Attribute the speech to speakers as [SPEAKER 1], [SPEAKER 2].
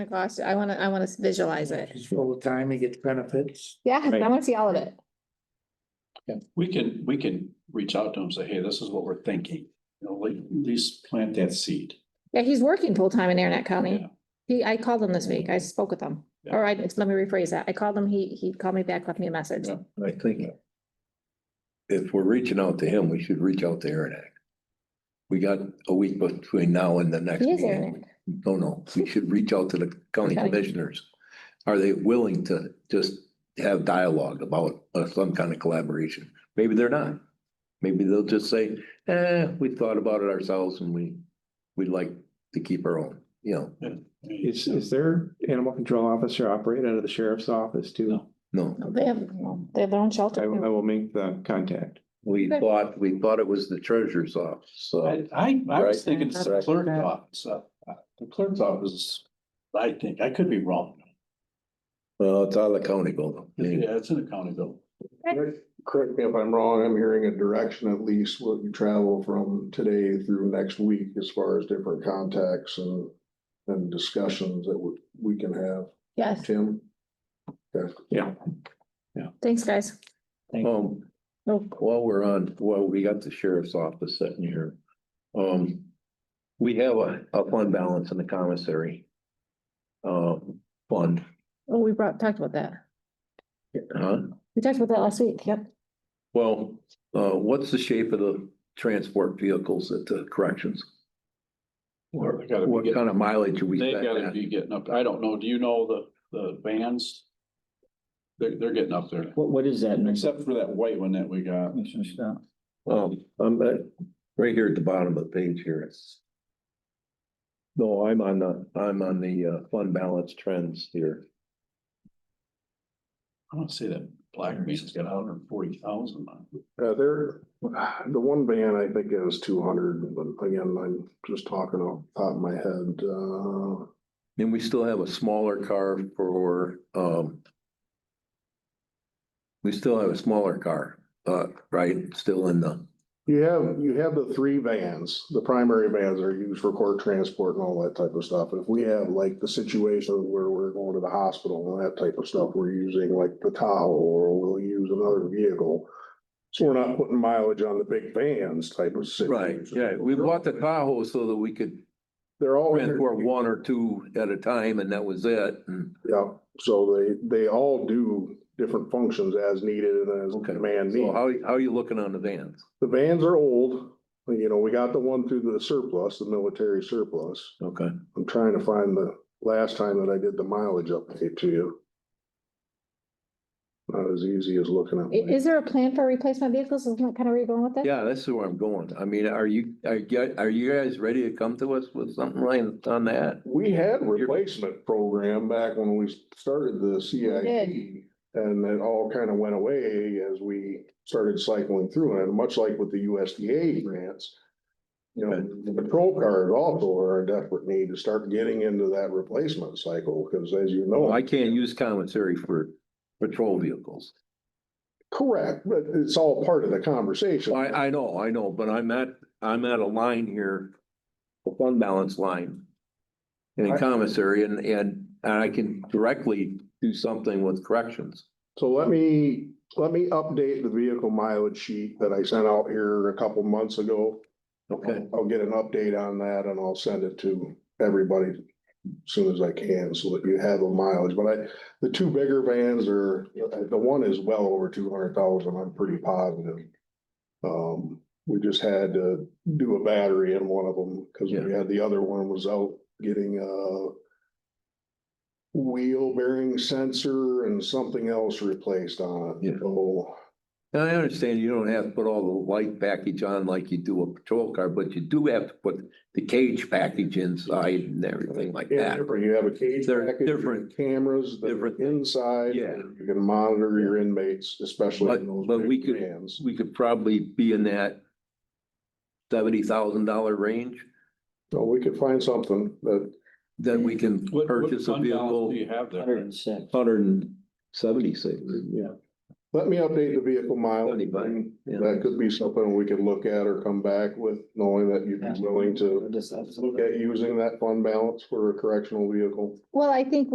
[SPEAKER 1] my gosh, I wanna, I wanna visualize it.
[SPEAKER 2] He's full of time, he gets benefits.
[SPEAKER 1] Yeah, I wanna see all of it.
[SPEAKER 3] We can, we can reach out to them, and say, hey, this is what we're thinking, you know, like, at least plant that seed.
[SPEAKER 1] Yeah, he's working full-time in Arnett County.
[SPEAKER 3] Yeah.
[SPEAKER 1] He, I called him this week. I spoke with him.
[SPEAKER 3] Yeah.
[SPEAKER 1] Or I, let me rephrase that. I called him, he, he called me back, left me a message.
[SPEAKER 3] Yeah.
[SPEAKER 4] I think if we're reaching out to him, we should reach out to Aaron. We got a week between now and the next
[SPEAKER 1] He is
[SPEAKER 4] meeting.
[SPEAKER 1] Arnett.
[SPEAKER 4] No, no, we should reach out to the county
[SPEAKER 1] Okay.
[SPEAKER 4] commissioners. Are they willing to just have dialogue about uh, some kind of collaboration? Maybe they're not. Maybe they'll just say, eh, we thought about it ourselves and we, we'd like to keep our own, you know,
[SPEAKER 5] Is, is their animal control officer operate out of the sheriff's office too?
[SPEAKER 3] No.
[SPEAKER 4] no.
[SPEAKER 1] No, They have, no, they have their own
[SPEAKER 5] I, I
[SPEAKER 1] shelter. too.
[SPEAKER 5] will make the contact.
[SPEAKER 4] We
[SPEAKER 1] Okay.
[SPEAKER 4] thought, we thought it was the treasurer's office, so.
[SPEAKER 3] I, I, I was
[SPEAKER 4] Right.
[SPEAKER 3] thinking it's the
[SPEAKER 4] Right.
[SPEAKER 3] clerk's office, uh, uh, the clerk's office, I think, I could be wrong.
[SPEAKER 4] Well, it's out of the county building.
[SPEAKER 3] Yeah, it's in the county bill.
[SPEAKER 6] Correct me if I'm wrong, I'm hearing a direction at least what you travel from today through next week as far as different contacts and. And discussions that we, we can have,
[SPEAKER 1] Yes,
[SPEAKER 6] Tim.
[SPEAKER 1] thanks, guys.
[SPEAKER 4] Um,
[SPEAKER 1] Oh.
[SPEAKER 4] while we're on, well, we got the sheriff's office sitting here. Um, we have a, a fund balance in the commissary. Um, fund,
[SPEAKER 1] Oh, we brought, talked about that.
[SPEAKER 4] huh?
[SPEAKER 1] We talked about that last week. Yep.
[SPEAKER 4] Well, uh, what's the shape of the transport vehicles at the corrections?
[SPEAKER 3] Well,
[SPEAKER 4] What
[SPEAKER 3] they gotta be getting-
[SPEAKER 4] kind of mileage are we?
[SPEAKER 3] They
[SPEAKER 4] setting
[SPEAKER 3] gotta
[SPEAKER 4] at?
[SPEAKER 3] be getting up, I don't know, do you know the, the vans? They're, they're getting up there,
[SPEAKER 7] What, what is that?
[SPEAKER 3] except for that white one that we got.
[SPEAKER 4] Um, I'm at, right here at the bottom of the page here, it's. No, I'm on the, I'm on the uh fund balance trends here.
[SPEAKER 3] I want to say that black man's got hundred and forty thousand on it.
[SPEAKER 6] Uh, there, the one van I think is two hundred, but again, I'm just talking off the top of my head, uh.
[SPEAKER 4] And we still have a smaller car for um. We still have a smaller car, uh, right, still in the,
[SPEAKER 6] You have, you have the three vans, the primary vans are used for court transport and all that type of stuff. If we have like the situation where we're going to the hospital and that type of stuff, we're using like the Tahoe or we'll use another vehicle. So we're not putting mileage on the big vans type of
[SPEAKER 4] right,
[SPEAKER 6] situation.
[SPEAKER 4] yeah, we bought the Tahoe so that we could.
[SPEAKER 6] They're all.
[SPEAKER 4] Transport one or two at a time and that was it, and
[SPEAKER 6] Yeah, so they, they all do different functions as needed and as
[SPEAKER 4] Okay.
[SPEAKER 6] demand
[SPEAKER 4] so
[SPEAKER 6] needs.
[SPEAKER 4] how, how are you looking on the vans?
[SPEAKER 6] The vans are old, you know, we got the one through the surplus, the military surplus.
[SPEAKER 4] Okay.
[SPEAKER 6] I'm trying to find the last time that I did the mileage update to you. Not as easy as looking at.
[SPEAKER 1] I- Is,
[SPEAKER 6] my-
[SPEAKER 1] there a plan for replacement vehicles? Isn't that kind of where you're going with this?
[SPEAKER 4] Yeah, that's where I'm going. I mean, are you, are you, are you guys ready to come to us with something like on that?
[SPEAKER 6] We had replacement program back when we started the CIP. And it all kind of went away as we started cycling through and much like with the USDA grants. You know, the patrol cars also are in desperate need to start getting into that replacement cycle, because as you know.
[SPEAKER 4] Well, I can't use commissary for patrol vehicles.
[SPEAKER 6] Correct, but it's all part of the conversation.
[SPEAKER 4] I, I know, I know, but I'm at, I'm at a line here, a fund balance line. In a
[SPEAKER 6] I-
[SPEAKER 4] commissary and, and, and I can directly do something with corrections.
[SPEAKER 6] So let me, let me update the vehicle mileage sheet that I sent out here a couple months ago.
[SPEAKER 4] Okay,
[SPEAKER 6] I'll get an update on that and I'll send it to everybody as soon as I can so that you have a mileage. But I, the two bigger vans are, the one is well over two hundred thousand, I'm pretty positive. Um, we just had to do a battery in one of them because we had the other one was out getting a wheel bearing sensor and something else replaced on
[SPEAKER 4] Yeah.
[SPEAKER 6] it. So
[SPEAKER 4] now I understand you don't have to put all the light package on like you do a patrol car, but you do have to put the cage package inside and everything like
[SPEAKER 6] Yeah,
[SPEAKER 4] that.
[SPEAKER 6] different. You have a cage
[SPEAKER 4] They're
[SPEAKER 6] package, you have
[SPEAKER 4] different-
[SPEAKER 6] cameras that are
[SPEAKER 4] different-
[SPEAKER 6] inside.
[SPEAKER 4] Yeah.
[SPEAKER 6] You can monitor your inmates, especially
[SPEAKER 4] But-
[SPEAKER 6] in those
[SPEAKER 4] but we
[SPEAKER 6] big
[SPEAKER 4] could-
[SPEAKER 6] vans.
[SPEAKER 4] we could probably be in that seventy thousand dollar range,
[SPEAKER 6] So we could find something that,
[SPEAKER 4] then we can
[SPEAKER 3] What, what
[SPEAKER 4] purchase a
[SPEAKER 3] fund balance do
[SPEAKER 4] vehicle.
[SPEAKER 3] you have there?
[SPEAKER 7] Hundred and six.
[SPEAKER 4] Hundred and seventy-six.
[SPEAKER 6] yeah, Let me update the vehicle mileage.
[SPEAKER 4] Seventy-five, yeah.
[SPEAKER 6] That could be something we could look at or come back with, knowing that you'd uh, be willing to look at using that fund balance for a correctional vehicle.
[SPEAKER 1] Well, I think